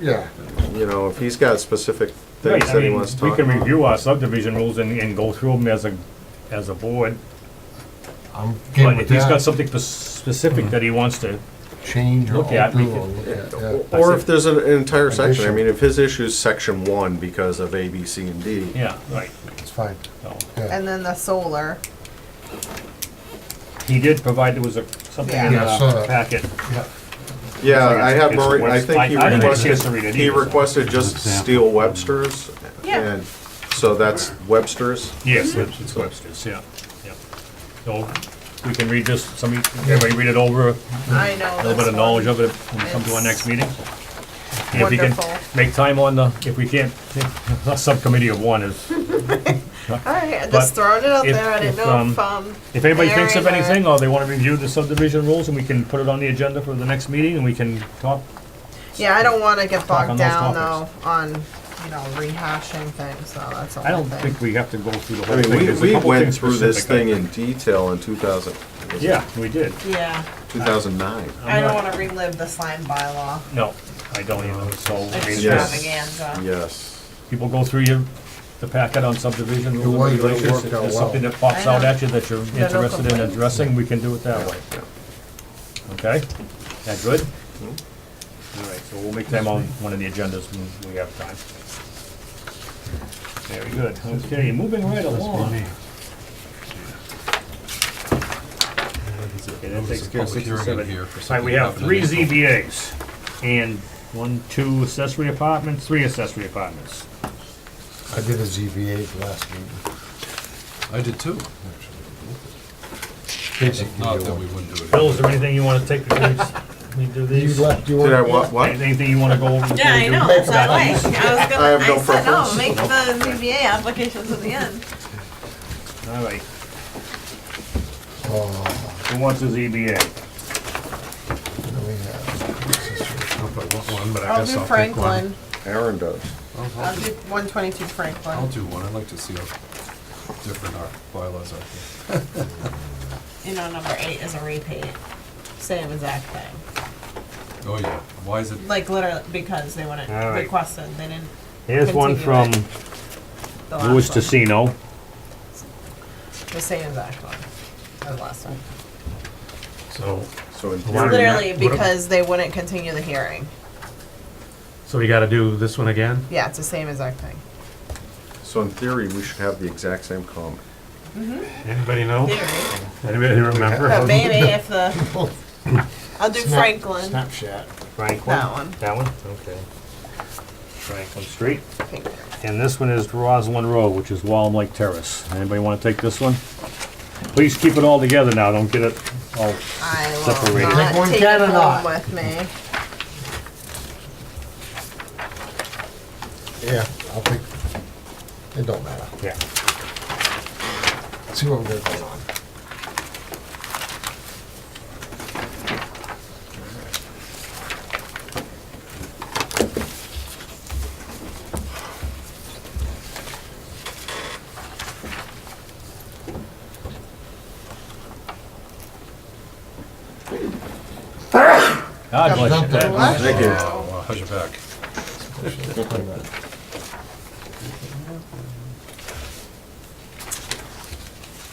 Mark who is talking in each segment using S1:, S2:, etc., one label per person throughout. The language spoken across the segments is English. S1: Yeah,
S2: You know, if he's got specific
S3: Right,
S2: things
S3: I
S2: that he
S3: mean,
S2: wants to
S3: we
S2: talk
S3: can
S2: about.
S3: review our subdivision rules and, and go through them as a, as a board.
S1: I'm game
S3: But
S1: with
S3: if he's got
S1: that. Hmm.
S3: something pers- specific that he wants to,
S1: Change or
S3: Look at, we
S1: alter or
S3: can-
S1: look at, yeah.
S2: Or if there's an entire section, I
S1: Addition.
S2: mean, if his issue's section one because of A, B, C, and D,
S3: yeah, right.
S1: It's fine,
S3: so.
S1: yeah.
S4: And then the solar,
S3: He did provide, there was a, something in
S1: Yeah, I saw
S3: the
S1: that.
S3: packet.
S1: Yeah.
S2: yeah,
S3: It's-
S2: I have,
S3: it's
S2: Murray- I
S3: worth-
S2: think he
S3: I- I didn't get a chance to
S2: requested,
S3: read it
S2: he
S3: either, so-
S2: requested just Steel Webster's.
S4: Yeah.
S2: and So that's Webster's,
S3: Yes, it's it's Webster's, yeah, yeah. So we can read this, somebody, everybody read it over,
S4: I know.
S3: a little bit
S4: this
S3: of knowledge
S4: one.
S3: of it when we come to our next meeting. And if we can
S4: Wonderful.
S3: Make time on the, if we can't, a subcommittee of one is,
S4: All right, I
S3: But
S4: just throwing it out
S3: if-
S4: there, I
S3: if,
S4: didn't know
S3: um,
S4: if, um,
S3: If anybody thinks of
S4: Aaron or-
S3: anything, or they wanna review the subdivision rules, and we can put it on the agenda for the next meeting, and we can talk.
S4: yeah, I don't wanna get
S3: on
S4: bogged
S3: those
S4: down though
S3: topics.
S4: on, you know, rehashing things, so that's the
S3: I
S4: whole
S3: don't
S4: thing.
S3: think we have to go through the
S2: I
S3: whole
S2: mean,
S3: thing.
S2: we,
S3: There's a
S2: we
S3: couple
S2: went
S3: things
S2: through this
S3: specific,
S2: thing in detail in two thousand.
S3: I- Yeah, Uh, we did.
S4: Yeah,
S2: Two thousand nine.
S4: I don't
S3: not-
S4: wanna relive the slime bylaw
S3: No, I don't even, so, I mean,
S2: Yes.
S4: extravaganza.
S2: Yes.
S3: people go through your, the packet on subdivision rules and
S1: was, but it
S3: regulations.
S1: worked
S3: If
S1: out
S3: there's
S1: well.
S3: something that pops
S4: I
S3: out
S4: know.
S3: at you that you're
S4: no
S3: interested in
S4: complaints.
S3: addressing, we can do it that way. Okay, that good? All right, so we'll make them on one of the agendas when we have time. Very good, okay, moving right along. Okay, that takes care of six and seven. All right, we have three ZBAs, and one, two accessory apartments, three accessory apartments.
S1: I did a ZBA last meeting.
S5: I did too.
S1: Basically,
S5: Not
S1: you
S5: that
S1: won.
S5: we wouldn't do it.
S3: Bill, is there anything you wanna take before we- we do
S1: You
S3: these?
S1: left your.
S2: Did I want, what?
S3: Anything you wanna go over? before
S4: Yeah,
S3: we
S4: I
S3: do
S4: know,
S3: this?
S4: that's what I like, I was
S2: I have
S4: gonna,
S2: no
S4: I said, no,
S2: preference.
S4: make the ZBA applications at the end.
S3: All right,
S1: Oh,
S3: who wants E a
S1: I
S3: ZBA?
S1: mean, uh,
S5: I don't know if I want one, but I
S4: I'll
S5: guess
S4: do
S5: I'll take one.
S4: Franklin,
S2: Aaron does.
S5: I'll-
S4: I'll
S5: I'll-
S4: do one twenty-two
S5: I'll
S4: Franklin,
S5: do one, I'd like to see how different our bylaws are.
S4: you know, number eight is a repeat, same exact thing.
S5: Oh, yeah, why is it,
S4: Like literally, because they wouldn't
S3: All right.
S4: request it, they didn't.
S3: Here's one from
S4: Continue The last
S3: Louis
S4: one.
S3: Tessino.
S4: The same exact one as the last one.
S3: So,
S2: So in
S3: Why
S2: theory,
S3: do we-
S4: Literally
S3: what-
S4: because they wouldn't continue the hearing.
S3: so we gotta do this one again?
S4: Yeah, it's the same exact thing.
S2: so in theory, we should have the exact same comment.
S3: Anybody know?
S4: Theory.
S3: Anybody
S4: But
S3: remember?
S4: maybe if the, I'll do
S1: snap-
S4: Franklin.
S1: Snapchat.
S3: Franklin?
S4: That one.
S3: That one, okay. Franklin Street.
S4: I think.
S3: And this one is Rosalind Road, which is Wallem Lake Terrace. Anybody wanna take this one? Please keep it all together now, don't get it all,
S4: I will
S3: Separated.
S1: Like
S4: not
S1: one
S4: take
S1: cat or
S4: it
S1: not?
S4: home with me.
S1: Yeah, I'll pick, it don't matter.
S3: yeah.
S1: See what we're going on.
S3: God bless you.
S1: Something.
S3: That-
S2: Thank you.
S5: oh, wow, how's your back?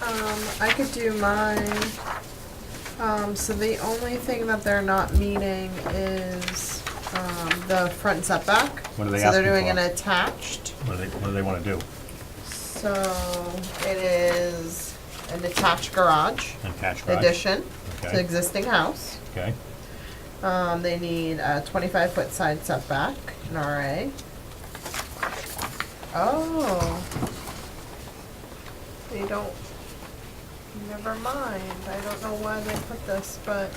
S4: Um, I could do mine. Um, so the only thing that they're not meeting is, um, the front setback.
S3: What are they
S4: So they're
S3: asking
S4: doing an
S3: for?
S4: attached.
S3: What do they, what do they wanna do?
S4: So it is an attached garage
S3: Attached garage?
S4: addition to the
S3: Okay,
S4: existing house.
S3: okay.
S4: Um, they need a twenty-five foot side setback, an RA. Oh. They don't, never mind, I don't know why they put this, but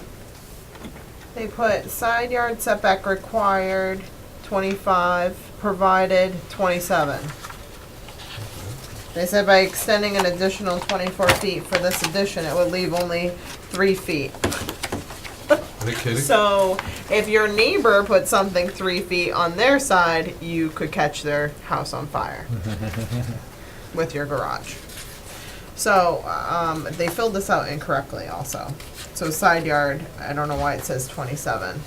S4: they put side yard setback required twenty-five, provided twenty-seven. They said by extending an additional twenty-four feet for this addition, it would leave only three feet.
S5: Are they kidding?
S4: So if your neighbor put something three feet on their side, you could catch their house on fire with your garage. So um, they filled this out incorrectly also. So side yard, I don't know why it says 27.